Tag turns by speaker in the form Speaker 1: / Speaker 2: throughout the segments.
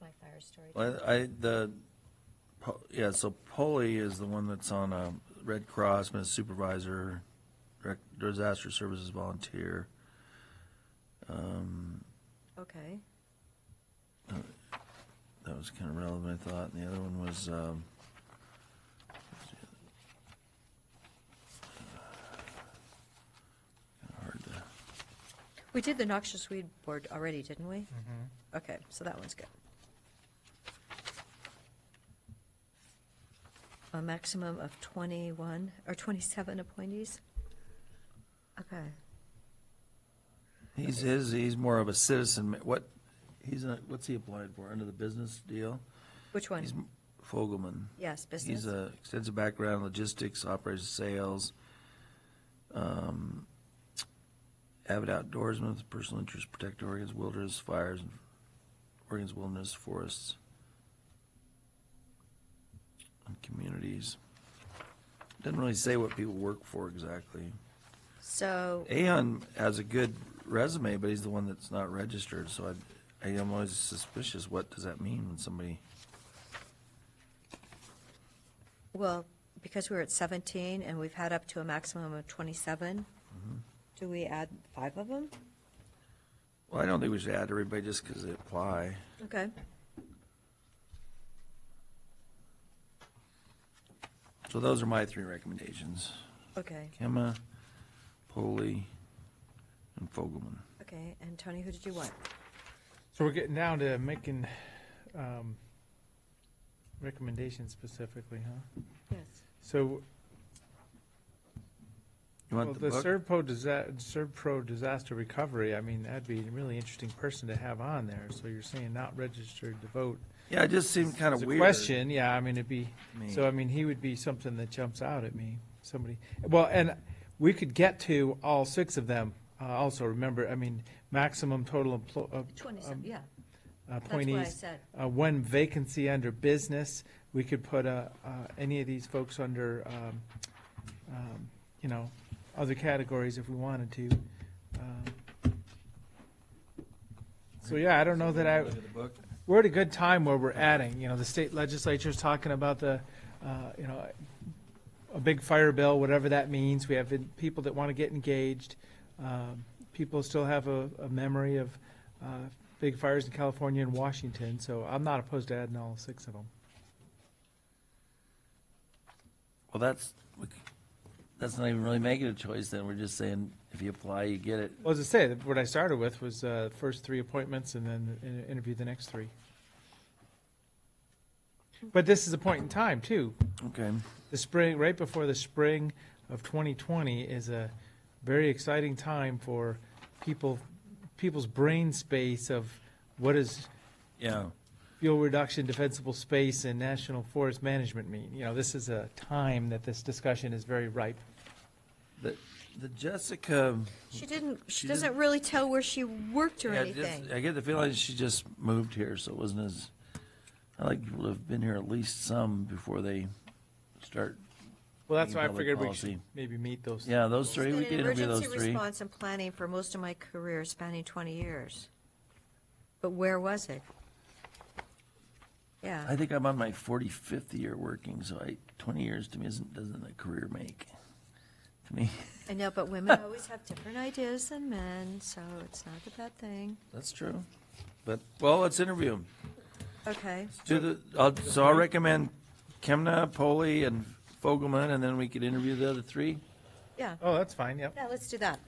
Speaker 1: my fire storage.
Speaker 2: Well, I, the, Po- yeah, so Polly is the one that's on a Red Cross, been a supervisor, direct- disaster services volunteer.
Speaker 3: Okay.
Speaker 2: That was kind of relevant, I thought. And the other one was, um, hard to,
Speaker 3: We did the noxious weed board already, didn't we?
Speaker 2: Mm-hmm.
Speaker 3: Okay, so that one's good. A maximum of 21 or 27 appointees? Okay.
Speaker 2: he's, his, he's more of a citizen. ma- What, he's, a- what's he applied for? Under the business deal?
Speaker 3: Which one?
Speaker 2: He's Fogelman.
Speaker 3: Yes, business.
Speaker 2: He's uh, a extensive background in logistics, operations, sales, um, avid outdoorsman with personal interest, protect Oregon's wilderness, fires, and Oregon's wilderness, forests, and communities. Doesn't really say what people work for exactly.
Speaker 3: So,
Speaker 2: Aon has a good resume, but he's the one that's not registered, so I, I am always suspicious, what does that mean when somebody?
Speaker 3: well, because we were at 17 and we've had up to a maximum of 27,
Speaker 2: Mm-hmm.
Speaker 3: do we add five of them?
Speaker 2: Well, I don't think we should add everybody just because they apply.
Speaker 3: Okay.
Speaker 2: So those are my three recommendations.
Speaker 3: Okay,
Speaker 2: Kemma, Polley, and Fogelman.
Speaker 3: okay. And Tony, who did you want?
Speaker 4: So we're getting down to making um, recommendations specifically, huh?
Speaker 3: Yes.
Speaker 4: So,
Speaker 2: You
Speaker 4: well,
Speaker 2: want
Speaker 4: the
Speaker 2: the book?
Speaker 4: Servpro disa- Servpro disaster recovery, I mean, that'd be a really interesting person to have on there. So you're saying not registered to vote?
Speaker 2: Yeah, it just seemed kind of
Speaker 4: It's a
Speaker 2: weird.
Speaker 4: question, yeah, I mean, it'd be,
Speaker 2: Me.
Speaker 4: so I mean, he would be something that jumps out at me, somebody. Well, and we could get to all six of them, uh, also, remember, I mean, maximum total emplo- uh,
Speaker 3: 27,
Speaker 4: um,
Speaker 3: yeah. That's what I
Speaker 4: appointees.
Speaker 3: said.
Speaker 4: Uh, one vacancy under business, we could put, uh, uh, any of these folks under, um, um, you know, other categories if we wanted to. Um, So, yeah, I don't know that I.
Speaker 2: Look at the book.
Speaker 4: We're at a good time where we're adding, you know, the state legislature's talking about the, uh, you know, a big fire bill, whatever that means. We have in- people that want to get engaged. Um, People still have a, a memory of uh, big fires in California and Washington, so I'm not opposed to adding all six of them.
Speaker 2: Well, that's, we c- that's not even really making a choice then. We're just saying, if you apply, you get it.
Speaker 4: Well, as I say, what I started with was uh, first three appointments and then in- interview the next three. But this is a point in time, too.
Speaker 2: Okay.
Speaker 4: the spring, right before the spring of 2020 is a very exciting time for people, people's brain space of what does
Speaker 2: Yeah.
Speaker 4: fuel reduction, defensible space, and national forest management mean? You know, this is a time that this discussion is very ripe.
Speaker 2: The, the Jessica,
Speaker 3: She didn't, she
Speaker 2: She didn't-
Speaker 3: doesn't really tell where she worked or
Speaker 2: yeah, just-
Speaker 3: anything.
Speaker 2: I get the feeling she just moved here, so it wasn't as, I like people to have been here at least some before they start.
Speaker 4: Well, that's
Speaker 2: Being
Speaker 4: why I
Speaker 2: public
Speaker 4: figured we
Speaker 2: policy.
Speaker 4: should maybe meet those.
Speaker 2: Yeah, those three,
Speaker 3: Been
Speaker 2: we
Speaker 3: in
Speaker 2: can interview those
Speaker 3: Emergency
Speaker 2: three.
Speaker 3: response and planning for most of my career spanning 20 years. But where was it?
Speaker 2: I
Speaker 3: Yeah,
Speaker 2: think I'm on my 45th year working, so I 20 years to me isn't doesn't a career make to me.
Speaker 3: I know, but women always have different ideas than men, so it's not a bad thing.
Speaker 2: That's true. But well, let's interview them.
Speaker 3: Okay,
Speaker 2: Do the I'll, so I'll recommend Kemna, Poley, and Fogelman, and then we could interview the other three.
Speaker 3: yeah,
Speaker 4: Oh, that's fine, yep.
Speaker 3: yeah, let's do that,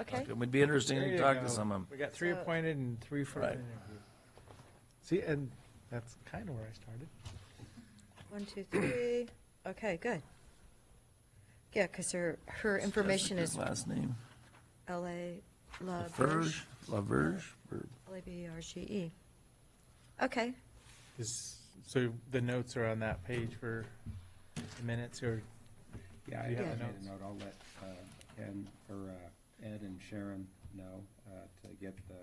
Speaker 3: okay?
Speaker 2: It would be interesting
Speaker 4: There
Speaker 2: to
Speaker 4: you
Speaker 2: talk
Speaker 4: go.
Speaker 2: to some of them.
Speaker 4: We got three
Speaker 3: So-
Speaker 4: appointed and three for
Speaker 2: Right.
Speaker 4: interview. See, and that's kind of where I started.
Speaker 3: One, two, three, okay, good. Yeah, because her, her information is
Speaker 2: last name.
Speaker 3: LA, La
Speaker 2: Laverge, Laverge. Or-
Speaker 3: E L-A-B-E-R-G-E. Okay,
Speaker 4: Is, so the notes are on that page for the minutes or,
Speaker 5: Yeah, I
Speaker 4: Do you
Speaker 3: have
Speaker 5: have
Speaker 4: the
Speaker 5: made
Speaker 4: notes?
Speaker 5: a note, I'll let uh, Ed, or uh, Ed and Sharon know uh, to get the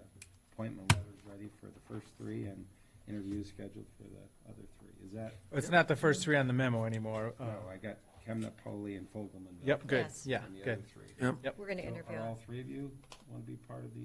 Speaker 5: appointment letters ready for the first three and interviews scheduled for the other three. Is that,
Speaker 4: it's not the first three on the memo anymore. uh,
Speaker 5: no, I got Kemna, Polley, and Fogelman. though,
Speaker 4: Yep, good,
Speaker 3: Yes.
Speaker 4: yeah,
Speaker 5: And the
Speaker 4: good.
Speaker 5: other three.
Speaker 2: Yep.
Speaker 3: we're going to
Speaker 5: So
Speaker 3: interview.
Speaker 5: Are
Speaker 3: him.
Speaker 5: all three of you want to be part of the